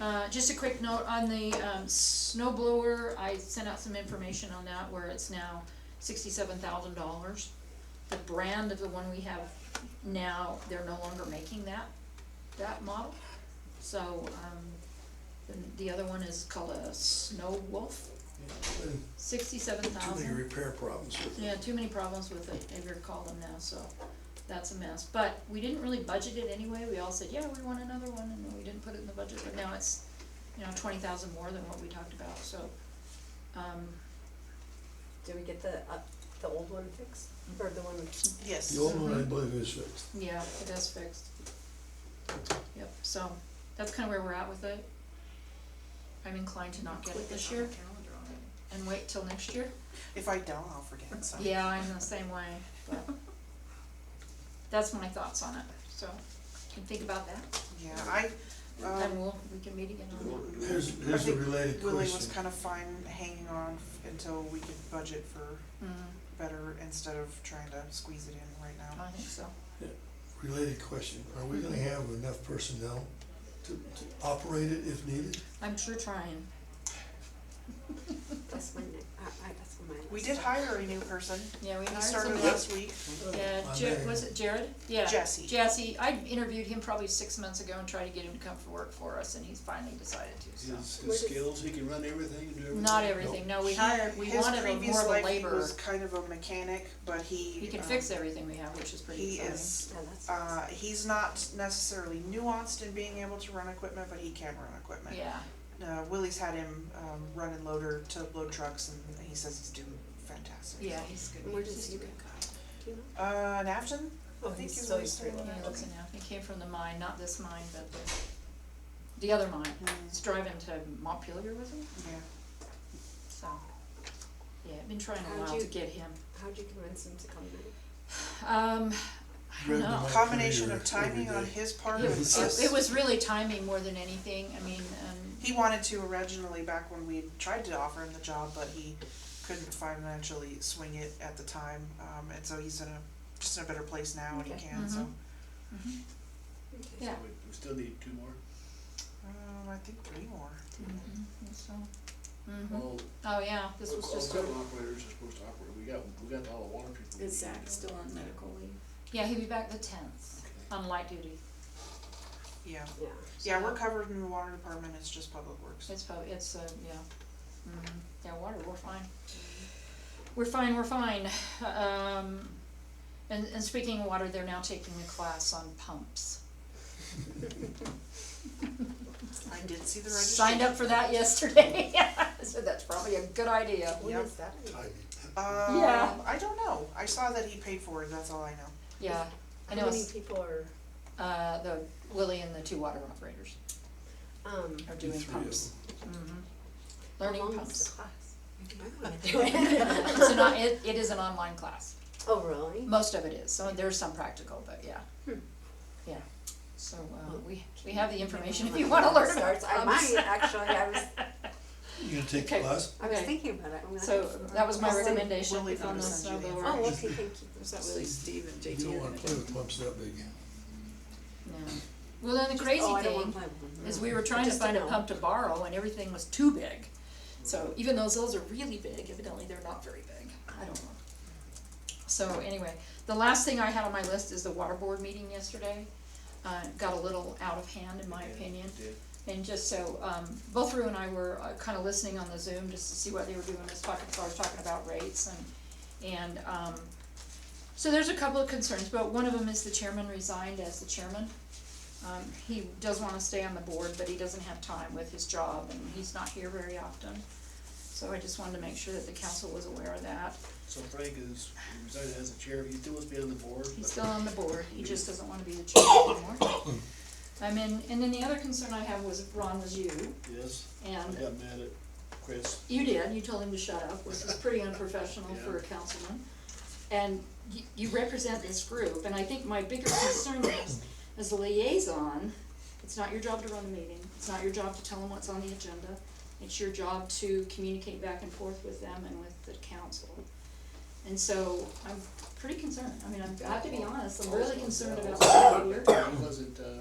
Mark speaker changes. Speaker 1: Uh, just a quick note on the, um, snow blower, I sent out some information on that where it's now sixty-seven thousand dollars. The brand of the one we have now, they're no longer making that, that model. So, um, the, the other one is called a Snow Wolf, sixty-seven
Speaker 2: Too
Speaker 1: thousand.
Speaker 2: many repair problems with
Speaker 1: Yeah,
Speaker 2: it.
Speaker 1: too many problems with it, if you recall them now, so that's a mess. But we didn't really budget it anyway, we all said, yeah, we want another one, and we didn't put it in the budget, but now it's, you know, twenty thousand more than what we talked about, so. Um,
Speaker 3: Did we get the, uh, the old one fixed, or the one?
Speaker 1: Mm-hmm.
Speaker 4: Yes.
Speaker 2: The old one, I believe, is fixed.
Speaker 1: yeah, it is fixed. Yep, so that's kinda where we're at with it. I'm inclined to not get it this year and wait till next year.
Speaker 4: If I don't, I'll forget, so.
Speaker 1: Yeah, I'm the same way, but that's my thoughts on it, so can think about that,
Speaker 4: Yeah, I,
Speaker 1: and
Speaker 4: um,
Speaker 1: we'll, we can meet again on that.
Speaker 2: Here's,
Speaker 4: I
Speaker 2: here's a
Speaker 4: think
Speaker 2: related
Speaker 4: Willie was
Speaker 2: question.
Speaker 4: kind of fine hanging on f- until we could budget for
Speaker 1: Mm,
Speaker 4: better instead of trying to squeeze it in right now.
Speaker 1: I think so.
Speaker 2: Related question. Are we
Speaker 1: Mm-hmm.
Speaker 2: gonna have enough personnel to, to operate it if needed?
Speaker 1: I'm sure trying.
Speaker 3: That's my, ne- I, I, that's on my list.
Speaker 4: We did hire a new person,
Speaker 1: Yeah, we
Speaker 4: he
Speaker 1: hired
Speaker 4: started
Speaker 1: somebody.
Speaker 4: last week,
Speaker 1: Yeah,
Speaker 2: My
Speaker 1: Jer-
Speaker 2: name.
Speaker 1: was it Jared? Yeah.
Speaker 4: Jesse.
Speaker 1: Jesse, I interviewed him probably six months ago and tried to get him to come for work for us, and he's finally decided to, so.
Speaker 5: His, his skills, he can run everything and do everything.
Speaker 1: Not everything, no, we hired, we
Speaker 4: his
Speaker 1: wanted a more
Speaker 4: previous
Speaker 1: of a
Speaker 4: life, he
Speaker 1: laborer.
Speaker 4: was kind of a mechanic, but he,
Speaker 1: He can
Speaker 4: um,
Speaker 1: fix everything we have, which is pretty
Speaker 4: He
Speaker 1: exciting.
Speaker 4: is,
Speaker 3: Yeah, that's.
Speaker 4: uh, he's not necessarily nuanced in being able to run equipment, but he can run equipment.
Speaker 1: Yeah,
Speaker 4: Uh, Willie's had him, um, run and loader to load trucks and he says he's doing fantastic.
Speaker 1: yeah, he's
Speaker 3: And
Speaker 1: good.
Speaker 3: where
Speaker 1: He's
Speaker 3: does
Speaker 1: a
Speaker 3: he go?
Speaker 1: good
Speaker 3: Do you know?
Speaker 4: Uh, Nafton?
Speaker 3: Oh,
Speaker 4: I think
Speaker 3: he's
Speaker 4: is
Speaker 3: so
Speaker 4: what he started
Speaker 3: extreme.
Speaker 1: guy. Yeah,
Speaker 4: at.
Speaker 1: he lives in Al- he came from the mine, not this mine, but the, the other mine.
Speaker 4: Mm,
Speaker 1: He's driving to Montpelier with him,
Speaker 4: Yeah.
Speaker 1: so. Yeah, I've been trying a
Speaker 3: How'd
Speaker 1: while to
Speaker 3: you-
Speaker 1: get him.
Speaker 3: How'd you convince him to come in?
Speaker 1: Um, I don't
Speaker 2: Driven
Speaker 1: know.
Speaker 2: by
Speaker 4: Combination
Speaker 2: computer
Speaker 4: of timing
Speaker 2: every
Speaker 4: on
Speaker 2: day.
Speaker 4: his part
Speaker 1: It
Speaker 4: and
Speaker 1: was, it- it
Speaker 4: us.
Speaker 1: was really timing more than anything, I mean, um,
Speaker 4: He wanted to originally back when we tried to offer him the job, but he couldn't financially swing it at the time. Um, and so he's in a, just in a better place now and he
Speaker 3: Okay.
Speaker 4: can, so.
Speaker 1: Mhm. yeah.
Speaker 5: We we still need two more.
Speaker 4: Um, I think three more.
Speaker 1: Mhm, so, mhm.
Speaker 5: All,
Speaker 1: Oh, yeah, this
Speaker 5: all
Speaker 1: was just,
Speaker 5: equipment operators are supposed to operate, we got, we got all the water people.
Speaker 6: Is Zach still on medical leave?
Speaker 1: yeah, he'll be back the tenth
Speaker 5: Okay.
Speaker 1: on light duty.
Speaker 4: Yeah.
Speaker 3: Yeah.
Speaker 4: Yeah, we're covered in the water department, it's just public works.
Speaker 1: It's probably, it's, uh, yeah. Mhm. Yeah, water, we're fine. We're fine, we're fine. Um, and, and speaking of water, they're now taking a class on pumps.
Speaker 4: I did see the registration.
Speaker 1: Signed up for that yesterday. So that's probably a good idea.
Speaker 3: When
Speaker 4: Yep.
Speaker 3: is that?
Speaker 2: Timing.
Speaker 4: Um,
Speaker 1: Yeah.
Speaker 4: I don't know. I saw that he paid for it. That's all I know.
Speaker 1: Yeah, I know,
Speaker 3: How many
Speaker 1: it's,
Speaker 3: people are,
Speaker 1: uh, the Willie and the two water operators
Speaker 3: um,
Speaker 1: are doing
Speaker 2: Three of
Speaker 1: pumps. Mhm.
Speaker 3: how
Speaker 1: Learning
Speaker 3: long is the
Speaker 1: pumps.
Speaker 3: class? I wanna do it.
Speaker 1: It's an, on- it, it is an online class.
Speaker 3: Oh, really?
Speaker 1: Most of it is, so there's some practical, but yeah.
Speaker 3: Hmm.
Speaker 1: Yeah, so, uh, we, we have the information if you wanna learn about
Speaker 3: Starts- I
Speaker 1: pumps.
Speaker 3: might, actually, I was,
Speaker 2: You gonna take
Speaker 1: Okay.
Speaker 2: the class?
Speaker 3: I was
Speaker 1: Okay.
Speaker 3: thinking about it, I'm gonna.
Speaker 1: So that was my
Speaker 4: I'll send
Speaker 1: recommendation on
Speaker 4: Willie
Speaker 1: the
Speaker 4: for the
Speaker 1: snowblower.
Speaker 4: send you the
Speaker 3: Oh, okay, thank you.
Speaker 6: Is that really Steve and
Speaker 2: You
Speaker 6: JT?
Speaker 2: don't
Speaker 6: are
Speaker 2: wanna
Speaker 6: gonna
Speaker 2: play
Speaker 6: do?
Speaker 2: with pumps that big.
Speaker 1: No. Well, then the crazy
Speaker 3: Oh, I don't want
Speaker 1: thing
Speaker 3: my one.
Speaker 1: is we were trying to
Speaker 3: Just to
Speaker 1: find a
Speaker 3: know.
Speaker 1: pump to borrow and everything was too big. So even though those are really big, evidently they're not very big, I don't know. So anyway, the last thing I had on my list is the water board meeting yesterday. Uh, got a little out of hand in my
Speaker 5: Yeah,
Speaker 1: opinion.
Speaker 5: did.
Speaker 1: And just so, um, both Rue and I were uh, kind of listening on the Zoom just to see what they were doing, as far as I was talking about rates and, and, um, so there's a couple of concerns, but one of them is the chairman resigned as the chairman. Um, he does wanna stay on the board, but he doesn't have time with his job and he's not here very often. So I just wanted to make sure that the council was aware of that.
Speaker 5: So Frank is, he resigned as the chair, he still must be on the board.
Speaker 1: He's
Speaker 5: but-
Speaker 1: still on the board, he just doesn't wanna be the chairman anymore. I mean, and then the other concern I have was, Ron, was you,
Speaker 5: Yes, I
Speaker 1: and
Speaker 5: got mad at Chris.
Speaker 1: You did, you told him to shut up, which is pretty unprofessional for a councilman. And you, you represent this group, and I think my bigger concern is, as a liaison, it's not your job to run a meeting, it's not your job to tell them what's on the agenda. It's your job to communicate back and forth with them and with the council. And so I'm pretty concerned, I mean, I've got to be honest, I'm really concerned about the behavior.
Speaker 5: He wasn't, uh,